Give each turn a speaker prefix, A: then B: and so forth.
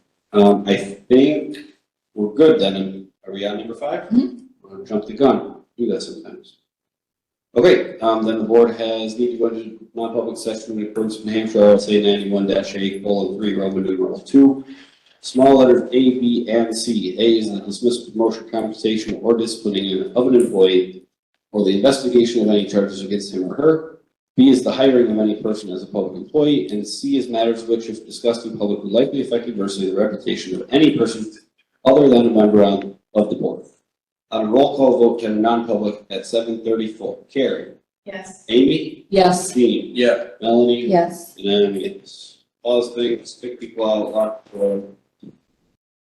A: Um, I think we're good then. Are we on number 5 Or jump the gun? Do that sometimes. Okay, um, then the board has need to go into non-public session in accordance with New Hampshire RSA ninety-one dash A colon three, Roman numeral two. Small letters A, B, and C. A is the dismissal, promotion, compensation, or disciplining of an employee or the investigation of any charges against him or her. B is the hiring of any person as a public employee, and C is matters which, if discussed in public, would likely affect adversely the reputation of any person other than a member on- of the board. On a roll call vote to non-public at seven thirty-four, Carrie,
B: Yes.
A: Amy,
C: Yes.
A: Dean,
D: Yeah.
A: Melanie,
C: Yes.
A: and I'm a yes. All those things, pick people out, lock the door,